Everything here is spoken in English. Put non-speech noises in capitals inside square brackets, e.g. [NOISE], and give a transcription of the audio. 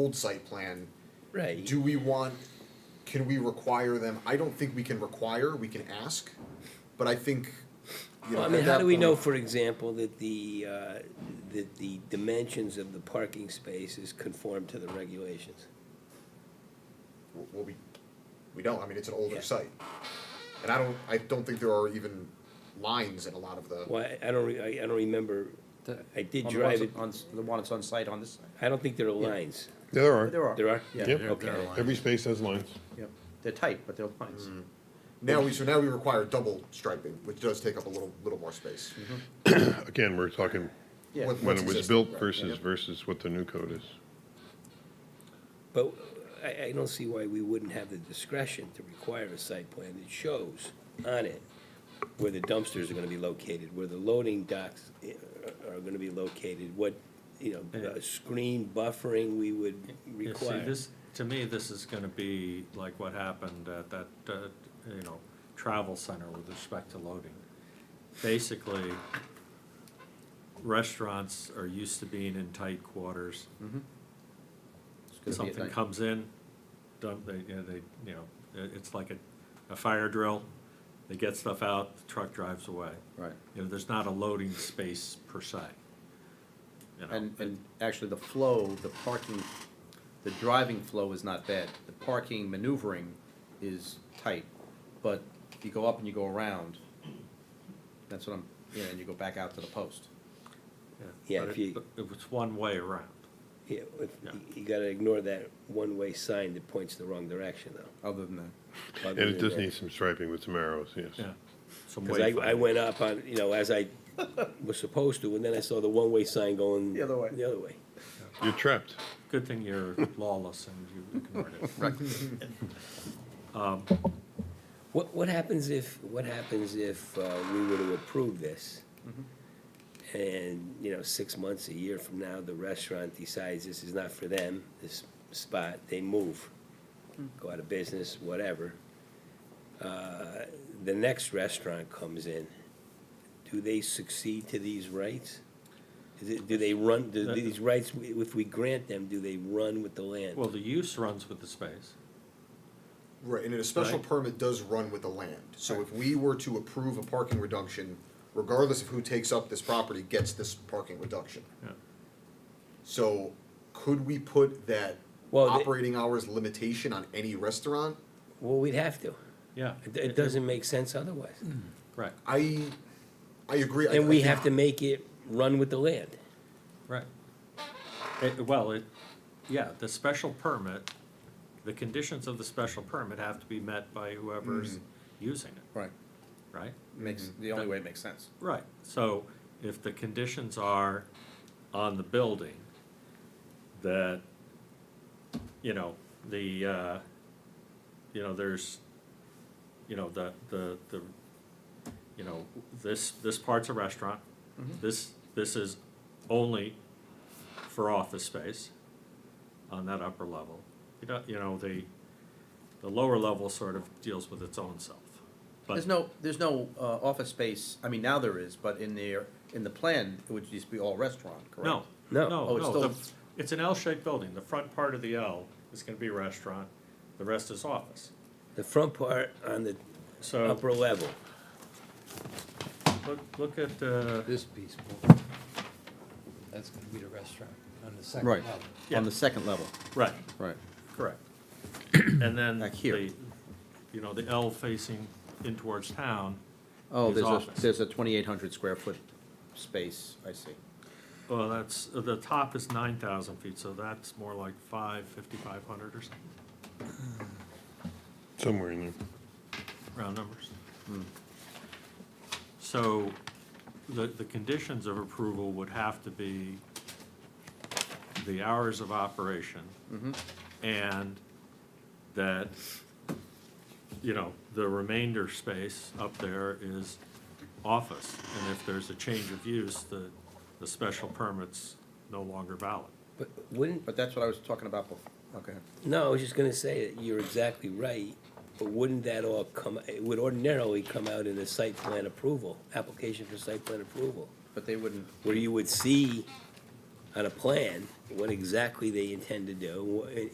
old site plan, Right. do we want, can we require them? I don't think we can require, we can ask, but I think, you know, Well, I at mean, how that do we know, point- for example, that the, uh, that the dimensions of the parking space is conform to the regulations? Well, we, we don't, I mean, it's an Yeah. older site. And I don't, I don't think there are even lines in a lot of the, Well, I- I don't, re- I I don't remember, The- I did on the drive ones it, On, s- the one that's on site on this side. I don't think there are lines. Yeah, there There are. are. There are? Yeah. Yep. They're- they're Okay. aligned. Every space has lines. Yep. They're tight, but they're lines. now we, so now we require double striping, which does take up a little, little more space. [CLEARS THROAT] Mm-hmm. Again, we're talking Yeah. What- when what's it was existing, built right, versus, yeah. versus what the new code is. But I, I don't see why we wouldn't have the discretion to require a site plan that shows on it where the dumpsters are gonna be located, where the loading docks eh, are gonna be located, what, you know, uh, screen buffering we would Yeah, see, require. this, to me, this is gonna be like what happened at that, uh, you know, travel center with respect to loading. Basically, restaurants are used to being in tight quarters. Hmm, It's gonna be at Something night. comes in, dump, they, you know, they, you know, it- it's like a, a fire drill. They get stuff out, the truck drives away. Right. You know, there's not a loading space per se. You know, And, it- and actually, the flow, the parking, the driving flow is not bad. The parking maneuvering is tight, but you go up and you go around. That's what I'm, yeah, and you go back out to the post. Yeah, but if it- you- but It was one way around. Yeah, if, Yeah. you gotta ignore that one-way sign that points the wrong direction, though. Other than that, other And it than does that. need some striping with some arrows, yes. Yeah. Some Cause I, I wayfinding. went up on, you know, as I was supposed to, and then I saw the one-way sign going. The other way. The other way. You're trapped. Good thing you're [LAUGHS] lawless and you ignored it. What, what happens if, what happens if, uh, we were to approve this? And, you know, six months, a year from now, the restaurant decides this is not for them, this spot, they move, go out of business, whatever. Uh, the next restaurant comes in, do they succeed to these rights? Is it, do they run, do these rights, if we grant them, do they run with the land? Well, the use runs with the space. Right, and a special Right. permit does run with the land, so if we were to approve a parking reduction, regardless of who takes up this property, gets this parking reduction. Yeah. So could we put that Well, the- operating hours limitation on any restaurant? Well, we'd have to, Yeah. it, it doesn't make sense otherwise. Right, I, I agree. I- And I we think- have to make it run with the land. right. It- well, it, yeah, the special permit, the conditions of the special permit have to be met by whoever's using it, right, right? makes, the only way it makes sense. Right, so if the conditions are on the building that, you know, the, uh, you know, there's, you know, the, the, the, you know, this, this part's a restaurant. This, this is only for office space on that upper level. You know, you know, the, the lower level sort of deals with its own self. But- There's no, there's no uh, office space, I mean, now there is, but in there, in the plan, it would just be all restaurant, correct? No, No. no, Oh, it's no, the- still- it's an L-shaped building, the front part of the L is gonna be restaurant, the rest is office. The front part on the So, upper level. look, look at, uh, This piece, that's gonna be the restaurant on the second Right, level. on the second level, right, right. correct. [CLEARS THROAT] And then Back here. the, you know, the L facing in towards town Oh, is there's a, office. there's a twenty-eight hundred square foot space, I see. Well, that's, the top is nine thousand feet, so that's more like five, fifty-five hundred or something, Somewhere in there. round numbers. Hmm. So, the, the conditions of approval would have to be the hours of operation. And that, you know, the remainder space up there is office. And if there's a change of use, the, the special permit's no longer valid. But wouldn't, But that's what I was talking about before, okay. no, I was just gonna say that you're exactly right, but wouldn't that all come, it would ordinarily come out in a site plan approval, application for site plan approval, But they wouldn't, where you would see on a plan what exactly they intend to do, wha-